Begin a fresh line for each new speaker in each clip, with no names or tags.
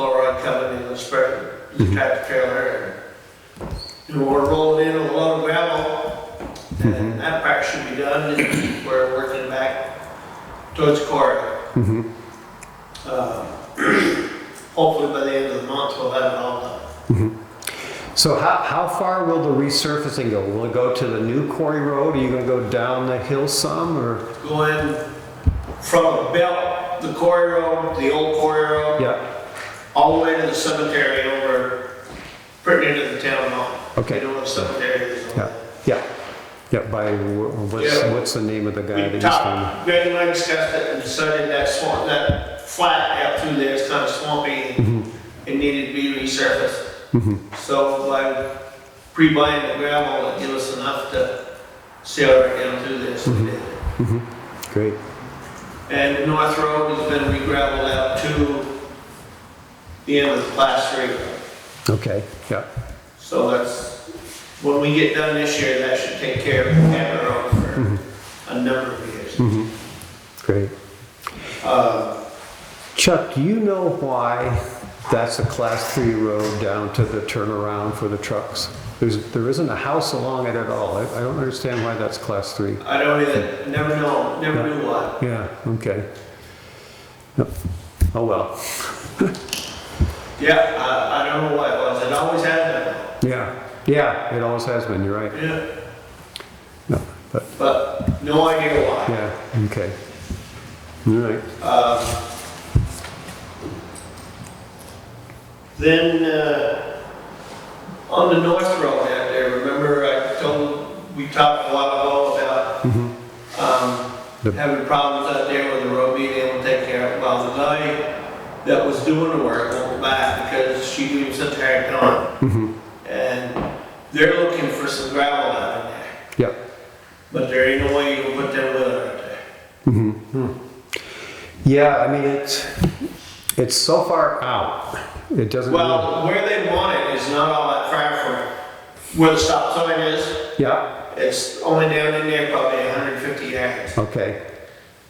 coming in the spring,
Mm-hmm.
you got the trailer and you were rolling in a lot of gravel.
Mm-hmm.
And that part should be done and we're working back towards quarry.
Mhm.
Uh, Hopefully by the end of the month, we'll have it all done.
So how, how far will the resurfacing go? Will it go to the new quarry road? Are you gonna go down the hill some or?
Going from the belt, the quarry road, the old quarry road,
Yeah,
all the way to the cemetery over, pretty near to the town hall.
Okay.
You know what cemetery is on
yeah,
that?
yeah, yeah, by, wh- what's,
Yeah.
what's the name of the guy that
We
he's on?
talked, Greg and I discussed it and decided that swamp, that flat out through there is kind of swampy. It needed to be resurfaced. So by pre-buying the gravel, it gave us enough to seal it down through there. so we did.
Great,
And North Road has been re-gravelled out to the end of the class three.
okay, yeah,
So that's, when we get done this year, that should take care of the Hammond Road for a number of years.
great.
Uh,
Chuck, do you know why that's a class three road down to the turnaround for the trucks? There's, there isn't a house along it at all. I, I don't understand why that's class three.
I don't even, never know, never knew why.
Yeah, okay. Yep. Oh, well,
Yeah, I, I don't know why it was, it always had
yeah, yeah, it always has been, you're right.
been, yeah,
No, but,
but no idea why.
yeah, okay. All right,
Um, Then, uh, on the North Road out there, remember I told, we talked a lot ago about,
The-
um, having problems out there with the road being able to take care of, it. well, the guy that was doing the work went back because she gave him such a hard time. And they're looking for some gravel out in there,
yeah.
but there ain't no way you can put that weather out there.
mm-hmm. Hmm. Yeah, I mean, it's, it's so far out, it doesn't. really-
Well, where they want it is not all that far from where the stop sign is.
Yeah,
It's only down in there probably 150 yards.
okay,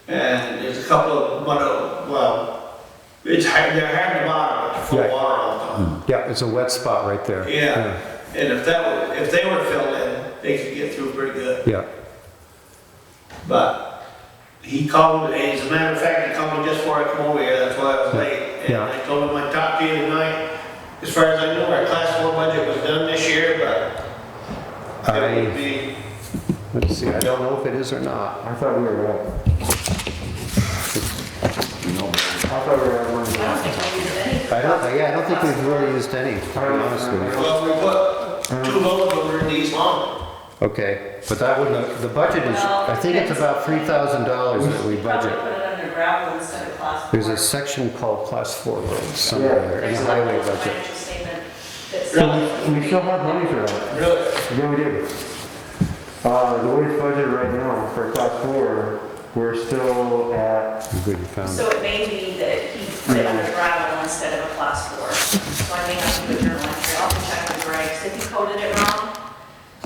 And there's a couple of mud, well, it's hard, they're hard to bottom, they're full of
Right.
water all the time.
yeah, it's a wet spot right there.
Yeah, and if that, were- if they were filled in, they could get through pretty good.
Yeah,
But he called, and as a matter of fact, he called me just before I come over here, that's why I was late. And
Yeah.
I told him I'd talk to you tonight. As far as I know, our class four budget was done this year, but it would
I,
be
let's see, I don't know if it is or not. I thought we were right. I thought we were at one.
I don't think I used any.
I don't, think- yeah, I don't think we've really used any, to be honest with you.
Well, we put two loads over in these long.
Okay, but that would, the budget is, I think it's about three thousand dollars that we
Probably
budget.
put it under gravel instead of class four.
There's a section called class four roads somewhere there in
There's
the
a
highway
little
budget.
financial statement that says-
We we still have money for that.
Really?
Yeah, we do. Uh, the way it's budgeted right now for class four, we're still at,
I'm Good, you found it.
So it may be that he put it under gravel instead of a class four. So I may have to put your electric, I'll check with Greg, 'cause if he coded it wrong,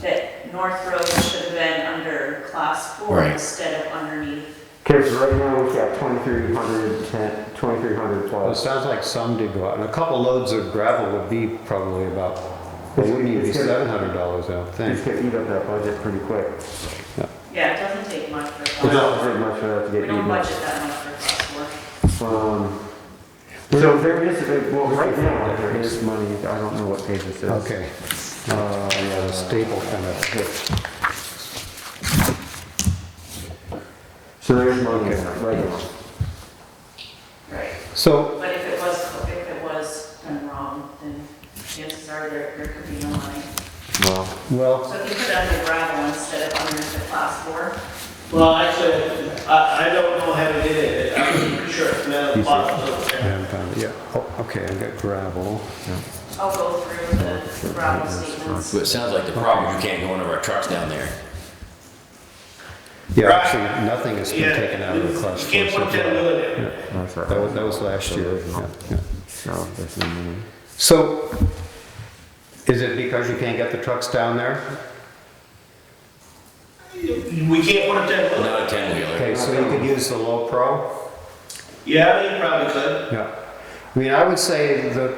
that North Road should have been under class four
Right.
instead of underneath.
because right now we've got 2,300, ten- 2,300
Well, it
plus.
sounds like some did go out, and a couple loads of gravel would be probably about, well, wouldn't even be seven hundred dollars, I don't
It's
think.
gonna eat up that budget pretty quick.
Yeah, it doesn't take much for a
It
class.
doesn't take much for that to
We
get
don't
eaten up.
budget that much for class four.
Um, so there is, a- well, right now, there is money, I don't know what page this is.
Okay,
Uh,
yeah, the staple kind of,
So there is money in that right now.
Right.
so,
But if it was, if it was done wrong, then chances are there, there could be no money.
Well,
well,
So if you put it under gravel instead of under the class four,
Well, actually, I, I don't know how to get it. I'm pretty sure it's metal bottles.
I haven't found it yet. Oh, okay, I got gravel.
I'll go through the gravel statements.
So it sounds like the problem, is you can't go into our trucks down there.
Yeah,
Right.
actually, nothing has been taken out of the class
You
four
can't
so
put that
far.
wheel in there.
that's right.
That was, that was last year, yeah, yeah.
No, there's no money.
So, is it because you can't get the trucks down there?
We can't put that wheel in.
Not a ten wheeler.
Okay, so you could use the low pro?
Yeah, you probably could.
Yeah. I mean, I would say the